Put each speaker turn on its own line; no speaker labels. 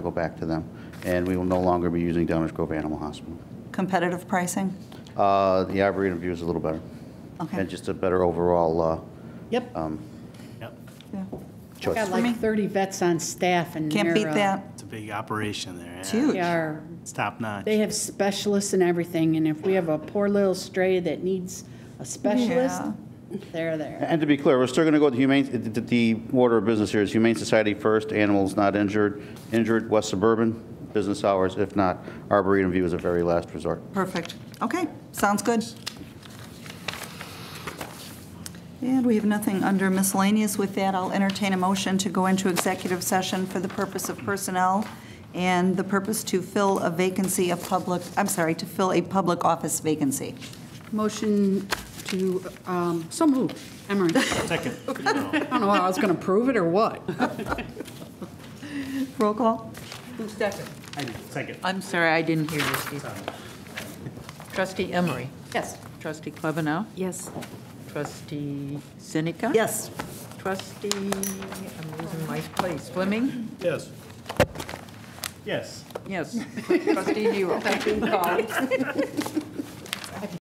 go back to them. And we will no longer be using Downers Grove Animal Hospital.
Competitive pricing?
Uh, The Arboretum view is a little better.
Okay.
And just a better overall uh,
Yep.
um,
Yep,
Yeah.
choice.
Got
me.
like 30 vets on staff and
Can't beat
they're, uh,
that.
it's a big operation there.
It's
yeah.
huge.
They are,
It's top notch.
they have specialists and everything, and if we have a poor little stray that needs a specialist,
Yeah.
they're there.
And to be clear, we're still going to go with humane, the- the the order of business here is Humane Society first, animals not injured, injured, West Suburban, business hours, if not, Arboretum View is a very last resort.
Perfect. Okay, sounds good. And we have nothing under miscellaneous. With that, I'll entertain a motion to go into executive session for the purpose of personnel and the purpose to fill a vacancy of public, I'm sorry, to fill a public office vacancy.
Motion to, um, so moved, Emery.
Second.
I don't know, how I was going to prove it or what.
Roll call?
Who's second?
Second.
I'm sorry, I didn't hear you, Steve. Trustee Emery?
Yes.
Trustee Klebanow?
Yes.
Trustee Sinica?
Yes.
Trustee, I'm losing my place, Fleming?
Yes. Yes.
Yes. Trustee Nero.